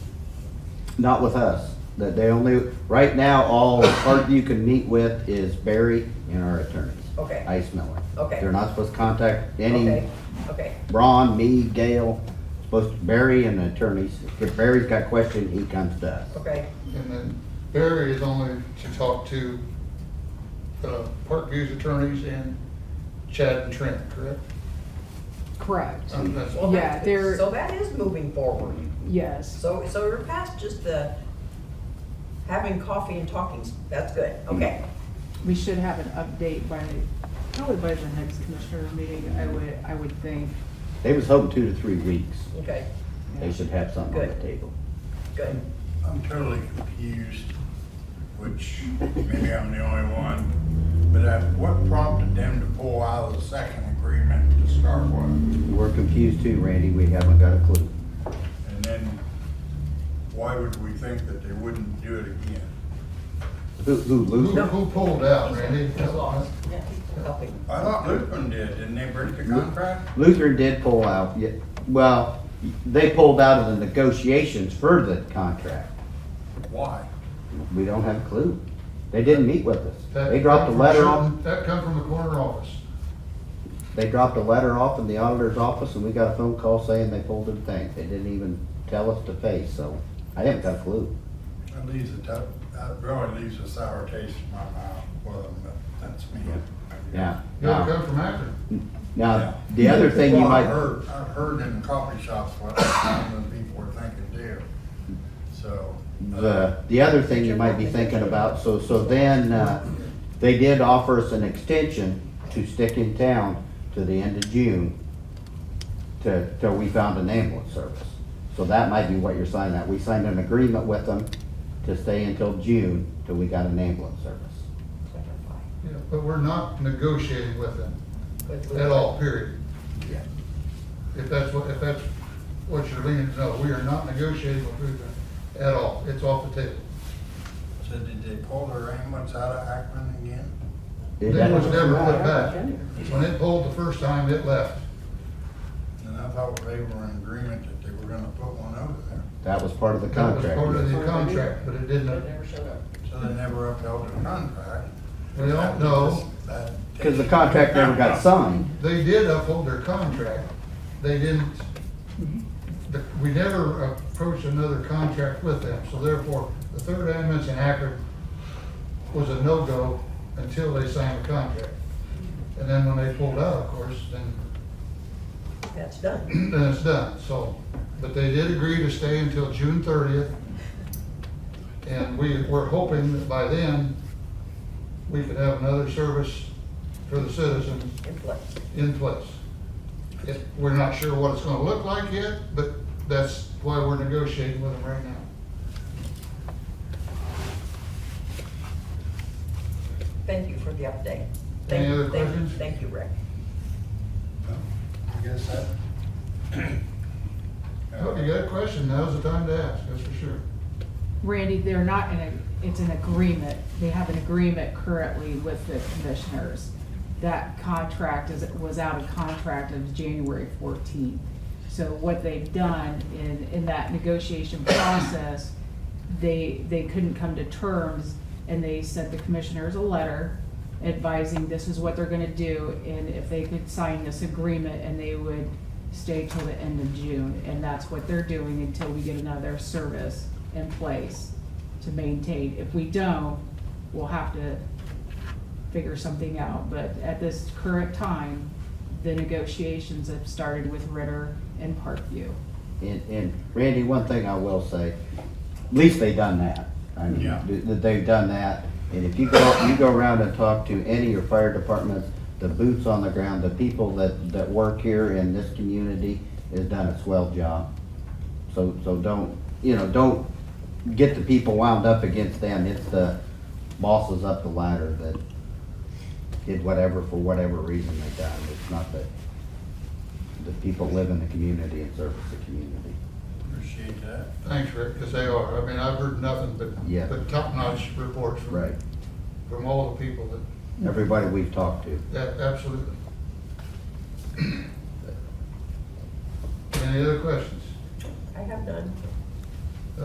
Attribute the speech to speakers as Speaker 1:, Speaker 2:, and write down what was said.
Speaker 1: Not with us, that they only, right now, all, part you can meet with is Barry and our attorneys.
Speaker 2: Okay.
Speaker 1: Ice Miller.
Speaker 2: Okay.
Speaker 1: They're not supposed to contact any,
Speaker 2: Okay, okay,
Speaker 1: Ron, me, Gail, supposed, to Barry and the attorneys. If Barry's got questions, he comes to us.
Speaker 2: okay,
Speaker 3: And then Barry is only to talk to uh, Parkview's attorneys and Chad and Trent, correct?
Speaker 4: Correct.
Speaker 1: Mm-hmm.
Speaker 3: Um, that's-
Speaker 2: well,
Speaker 4: Yeah,
Speaker 2: that,
Speaker 4: they're-
Speaker 2: so that is moving forward,
Speaker 4: Yes.
Speaker 2: so, so we're past just the having coffee and talking, that's good, okay,
Speaker 4: We should have an update by, probably by the next commissioner meeting, I would, I would think.
Speaker 1: They was hoping two to three weeks,
Speaker 2: okay,
Speaker 1: they should have something on the
Speaker 2: Good.
Speaker 1: table.
Speaker 2: good.
Speaker 5: I'm totally confused, which maybe I'm the only one, but uh, what prompted them to pull out of the second agreement to start with?
Speaker 1: We're confused too, Randy, we haven't got a clue.
Speaker 5: And then why would we think that they wouldn't do it again?
Speaker 1: Who, who,
Speaker 3: Who,
Speaker 1: Luther?
Speaker 3: who pulled out, Randy?
Speaker 2: Yeah, he's helping.
Speaker 5: I thought Lutheran did, didn't they break the contract?
Speaker 1: Lutheran did pull out, yeah, well, they pulled out of the negotiations for the contract.
Speaker 5: Why?
Speaker 1: We don't have a clue. They didn't meet with us. They dropped a letter off,
Speaker 3: That come from the corner office.
Speaker 1: they dropped a letter off in the auditor's office and we got a phone call saying they pulled the thing. They didn't even tell us to face, so I haven't got a clue.
Speaker 5: That leaves a tough, that really leaves a sour taste in my mouth with them, but that's me.
Speaker 1: Yeah.
Speaker 3: Yeah, it
Speaker 1: Now,
Speaker 3: come from Akron.
Speaker 1: now, the other thing you
Speaker 5: Well, I
Speaker 1: might,
Speaker 5: heard, I heard in coffee shops what some of the people were thinking too, so. uh,
Speaker 1: the, the other thing you might be thinking about, so, so then, uh, they did offer us an extension to stick in town to the end of June to, till we found an ambulance service. So that might be what you're signing that. We signed an agreement with them to stay until June till we got an ambulance service.
Speaker 2: Clarify.
Speaker 3: Yeah, But we're not negotiating with them
Speaker 2: Good, good.
Speaker 3: at all, period.
Speaker 1: Yeah.
Speaker 3: If that's what, if that's what you're leaning, no, we are not negotiating with Lutheran at all. It's off the table.
Speaker 5: So did they pull their ambulance out of Ackman again?
Speaker 1: Is
Speaker 3: They was
Speaker 1: that-
Speaker 3: never put back. When it pulled the first time, it left.
Speaker 5: And I thought they were in agreement that they were gonna put one over there,
Speaker 1: That was part of the
Speaker 3: That was part of
Speaker 1: contract.
Speaker 3: the contract, but it didn't,
Speaker 2: Never showed up.
Speaker 5: so they never upheld the contract.
Speaker 3: we don't know.
Speaker 5: That-
Speaker 1: Because the contract never got signed.
Speaker 3: They did uphold their contract. They didn't, the- we never approached another contract with them. So therefore, the third ambulance in Akron was a no-go until they signed the contract. And then when they pulled out, of course, then,
Speaker 2: That's done,
Speaker 3: then it's done, so. But they did agree to stay until June thirtieth. And we, we're hoping that by then, we could have another service for the citizens
Speaker 2: in place.
Speaker 3: in place. It- We're not sure what it's gonna look like yet, but that's why we're negotiating with them right now.
Speaker 2: Thank you for the update.
Speaker 3: Any
Speaker 2: Thank you,
Speaker 3: other
Speaker 2: thank you,
Speaker 3: questions?
Speaker 2: Thank you, Rick.
Speaker 5: I guess that.
Speaker 3: Well, If you got a question, now's the time to ask, that's for sure.
Speaker 4: Randy, they're not in a, it's an agreement. They have an agreement currently with the commissioners. That contract is, was out of contract of January fourteenth. So what they've done in, in that negotiation process, they, they couldn't come to terms and they sent the commissioners a letter advising this is what they're gonna do and if they could sign this agreement and they would stay till the end of June. And that's what they're doing until we get another service in place to maintain. If we don't, we'll have to figure something out. But at this current time, the negotiations have started with Ritter and Parkview.
Speaker 1: And, and Randy, one thing I will say, at least they done that. I mean,
Speaker 5: Yeah.
Speaker 1: th- that they've done that. And if you go, you go around and talk to any of your fire departments, the boots on the ground, the people that, that work here in this community has done a swell job. So, so don't, you know, don't get the people wound up against them. It's the bosses up the ladder that did whatever, for whatever reason they done. It's not that the people live in the community and service the community.
Speaker 5: Appreciate that.
Speaker 3: Thanks, Rick, because they are, I mean, I've heard nothing
Speaker 1: Yeah.
Speaker 3: but, but top-notch reports from, from all the people that,
Speaker 1: Everybody we've talked to.
Speaker 3: that absolutely. Any other questions?
Speaker 2: I have none.